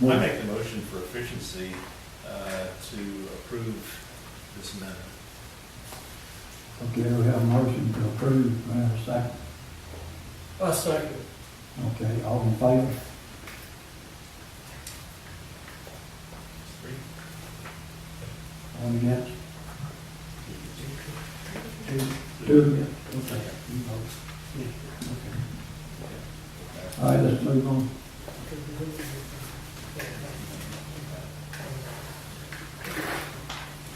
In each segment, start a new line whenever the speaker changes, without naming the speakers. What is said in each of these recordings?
I make the motion for efficiency uh, to approve this amendment.
Okay, we have a motion to approve, May I have a second?
I second.
Okay, all in favor?
Three?
All against? Two, two against, okay. you vote. Okay. All right, let's move on.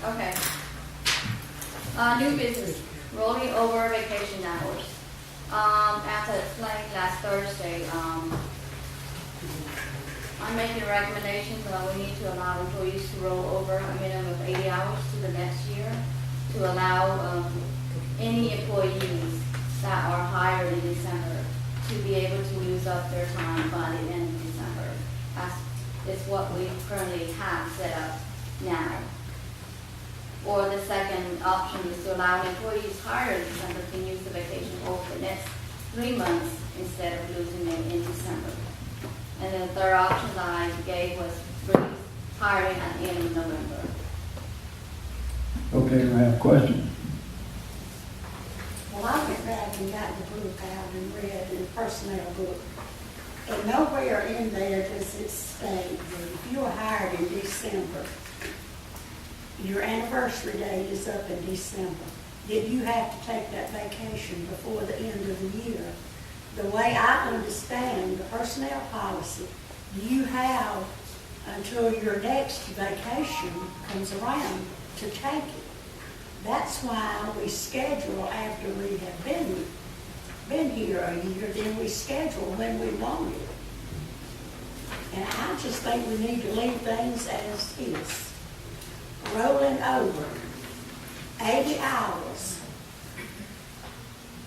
Okay. Uh, new business, rolling over vacation hours. Um, as I explained last Thursday, um, I'm making a recommendation that we need to allow employees to roll over a minimum of eighty hours to the next year to allow, um, any employees that are hired in December to be able to use up their time by the end of December. That's, it's what we currently have set up now. Or the second option is to allow employees hired in December to use the vacation over the next three months instead of losing it in December. And then the third option that I gave was freeze hiring at the end of November.
Okay, we have questions.
Well, I went back and got the book out and read the personnel book. And nowhere in there does it state that if you are hired in December, your anniversary day is up in December, that you have to take that vacation before the end of the year. The way I understand the personnel policy, you have until your next vacation comes around to take it. That's why we schedule after we have been, been here a year, then we schedule when we want it. And I just think we need to leave things as is. Rolling over eighty hours.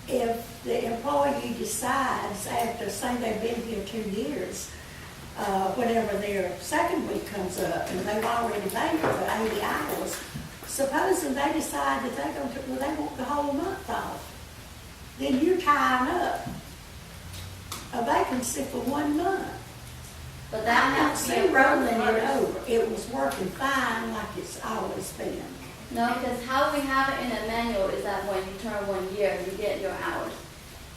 If the employee decides after, say they've been here two years, uh, whenever their second week comes up and they've already paid for eighty hours, supposing they decide that they're gonna, well, they want the whole month off, then you're tying up a vacancy for one month.
But that
I don't
has to be
see
approved
rolling it
first.
over. It was working fine like it's always been.
No, because how we have it in the manual is that when you turn one year, you get your hours.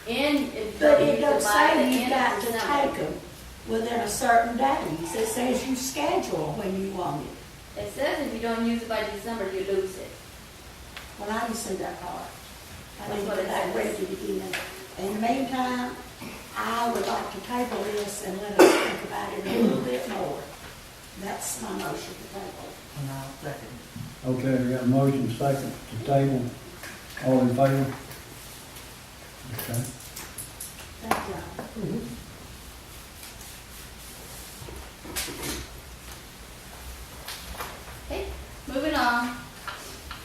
And if
But it
you
don't
divide the
say you
end
got
of
to take
December.
them within a certain days. It says you schedule when you want it.
It says if you don't use it by December, you lose it.
Well, I didn't see that part. I
That's
didn't
what
get
it
that
says.
ready again. In the meantime, I would like to table this and let us think about it a little bit more. That's my motion to table.
And I'll second.
Okay, we got a motion second to table. All in favor? Okay.
Thank y'all.
Okay, moving on,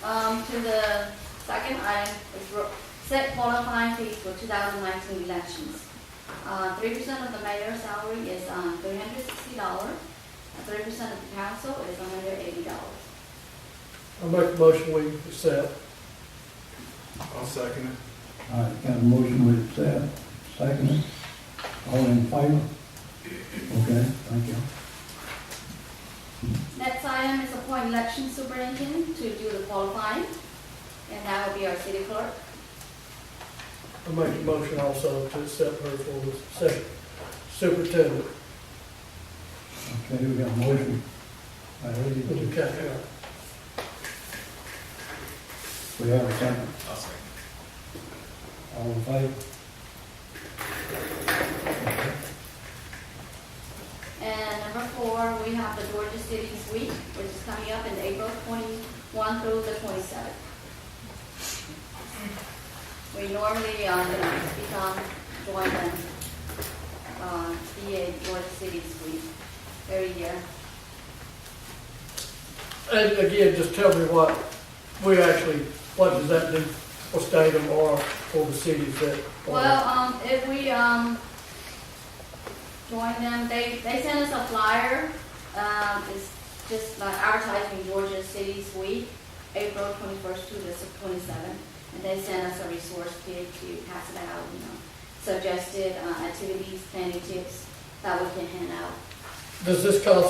um, to the second item, is ro- set qualifying fees for 2019 elections. Uh, 3% of the mayor's salary is, um, $360, and 3% of the council is $180.
I make a motion we accept.
I'll second it.
All right, got a motion with Seth, second. All in favor? Okay, thank you.
Next item is appoint election superintendent to do the qualifying, and that will be our city clerk.
I make a motion also to accept her for the second superintendent.
Okay, we got a motion. by Eddie to-
Okay.
We have a second.
I'll second
All in favor?
And number four, we have the Georgia Cities Week, which is coming up in April twenty-one through the twenty-seventh. We normally, uh, you know, speak on joint and, uh, DA Georgia Cities Week every year.
And again, just tell me what, we actually, what does that do for Statham or for the cities that? are-
Well, um, if we, um, join them, they, they send us a flyer, um, it's just like advertising Georgia Cities Week, April twenty-first to the twenty-seventh, and they send us a resource kit to pass it out, you know, suggested, uh, activities, planning tips that we can hand out.
Does this cost